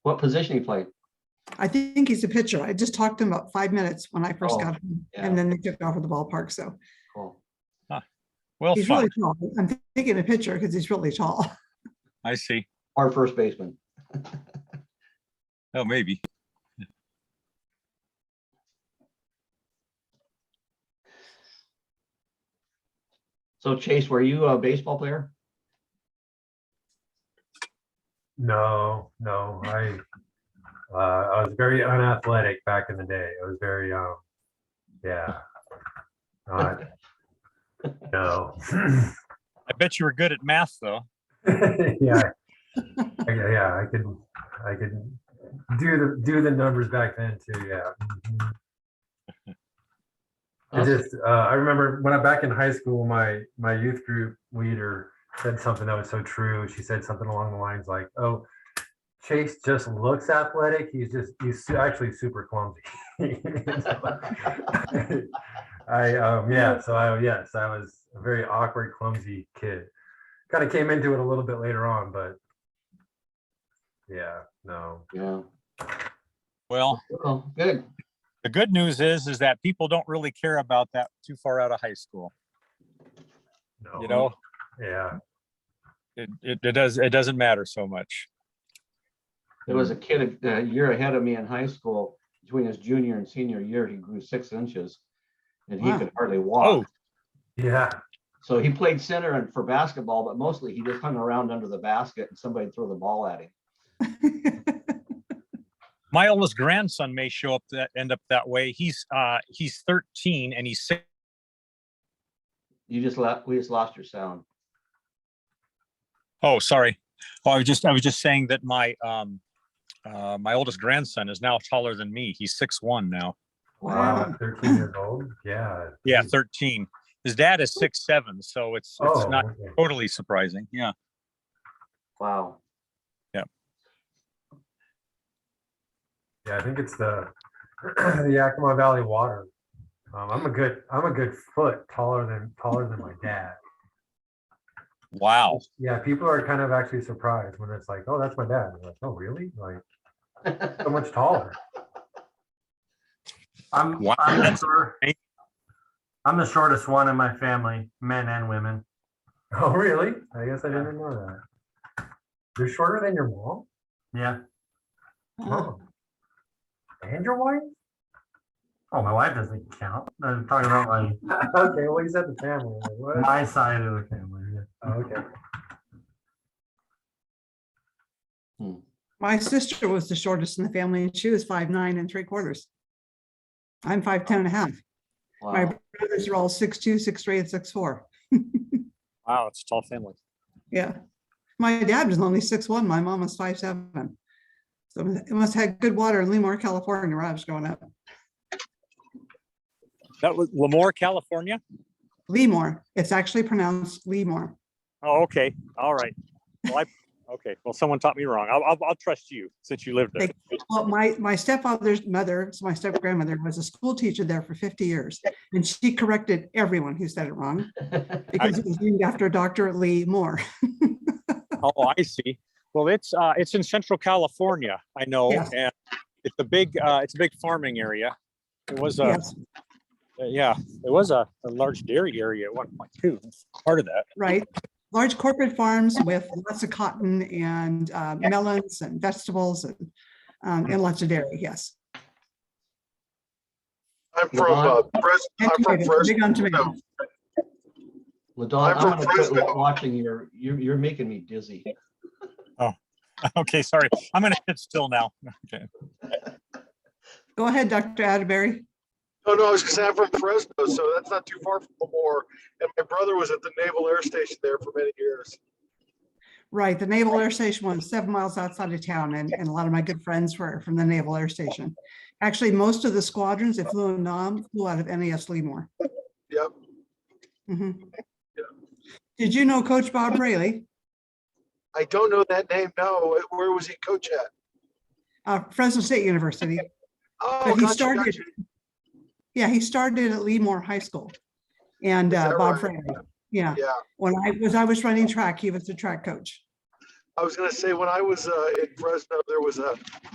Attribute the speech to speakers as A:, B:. A: What position he played?
B: I think he's a pitcher. I just talked to him about five minutes when I first
A: Oh,
B: got him,
A: yeah.
B: and then they took off at the ballpark, so.
A: Cool. Oh,
C: Well,
B: He's
C: fuck,
B: really tall. I'm thinking a pitcher because he's really tall.
C: I see.
A: Our first baseman.
C: Oh, maybe.
A: So Chase, were you a baseball player?
D: No, no, I, uh, I was very unathletic back in the day. I was very, um, yeah. Not, no.
C: I bet you were good at math, though.
D: Yeah. I- Yeah, I could, I could do the, do the numbers back then too, yeah. Mhm. I
A: Awesome.
D: just, uh, I remember when I'm back in high school, my, my youth group leader said something that was so true. She said something along the lines like, oh, Chase just looks athletic. He's just, he's su- actually super clumsy. I, um, yeah, so I, yes, I was a very awkward, clumsy kid. Kind of came into it a little bit later on, but yeah, no.
A: Yeah.
C: Well,
A: Well, Oh, good.
C: the good news is, is that people don't really care about that too far out of high school.
D: no,
C: You know,
D: Yeah,
C: it, it, it does, it doesn't matter so much.
A: There was a kid a year ahead of me in high school, between his junior and senior year, he grew six inches. And he
B: Wow.
A: could hardly
C: Oh,
A: walk.
D: yeah,
A: So he played center and for basketball, but mostly he just hung around under the basket and somebody throw the ball at him.
C: my oldest grandson may show up that, end up that way. He's, uh, he's thirteen and he's six.
A: You just left, we just lost your sound.
C: Oh, sorry. Oh, I was just, I was just saying that my, um, uh, my oldest grandson is now taller than me. He's six one now.
D: wow, 13 years old, yeah.
C: Yeah, thirteen. His dad is six seven, so it's, it's
D: Oh,
C: not
D: okay.
C: totally surprising. Yeah.
A: Wow.
D: Yeah, I think it's the the Yakima Valley water. Um, I'm a good, I'm a good foot taller than, taller than my dad.
C: Wow.
D: Yeah, people are kind of actually surprised when it's like, oh, that's my dad. They're like, oh, really? Like, so much taller.
E: I'm,
C: Wow,
E: I'm the
C: that's
E: short-
C: amazing.
E: I'm the shortest one in my family, men and women.
D: Oh, really? I guess I didn't know that. You're shorter than your mom?
E: Yeah.
D: Oh. And your wife?
E: Oh, my wife doesn't count. I'm talking about my,
D: Okay, well, you said the family. like, what?
E: my side of the family. yeah.
D: Oh, Okay.
B: My sister was the shortest in the family, and she was five nine and three quarters. I'm five ten and a half. My
A: Wow.
B: brothers are all six two, six three, and six four.
C: Wow, it's a tall family.
B: Yeah. My dad was only six one. My mom was five seven. So it must have had good water in Lemoore, California, where I was growing up.
C: That was Lemoore, California?
B: Lemoore. It's actually pronounced Lemoore.
C: Oh, okay. All right. Well, I, okay. Well, someone taught me wrong. I'll, I'll, I'll trust you since you lived there.
B: Well, my, my stepfather's mother, so my step grandmother was a school teacher there for fifty years, and she corrected everyone who said it wrong because it was named after Dr. Lee Moore.
C: Oh, I see. Well, it's, uh, it's in central California. I know.
B: Yes.
C: And it's a big, uh, it's a big farming area. It was, a
B: Yes,
C: yeah, it was a, a large dairy area at one point too. It's Part of that.
B: right. Large corporate farms with lots of cotton and uh, melons and vegetables and, um, and lots of dairy, yes.
F: I'm from uh, Fres-
B: And
F: I'm from
B: tomatoes,
F: Fres-
B: Big on tomatoes.
A: Ladon,
F: I'm
A: I'm
F: from
A: gonna quit
F: Fresno.
A: watching your, you're, you're making me dizzy.
C: Okay, sorry. I'm gonna sit still now. Okay.
B: Go ahead, Dr. Atterbury.
F: No, no, I was gonna say I'm from Fresno, so that's not too far from Lemoore. And my brother was at the Naval Air Station there for many years.
B: Right, the Naval Air Station was seven miles outside of town, and, and a lot of my good friends were from the Naval Air Station. Actually, most of the squadrons that flew in Nam flew out of NAS Lemoore.
F: Yep.
B: Mhm.
F: Yeah.
B: Did you know Coach Bob Rayleigh,
F: I don't know that name now. Where was he coach at?
B: uh, Fresno State University?
F: Oh,
B: But he
F: gotcha,
B: started,
F: gotcha.
B: yeah, he started at Lemoore High School. And
F: Is
B: uh,
F: that
B: Bob
F: right?
B: Rayleigh, yeah,
F: Yeah.
B: when I was, I was running track, he was the track coach.
F: I was gonna say, when I was uh, in Fresno, there was a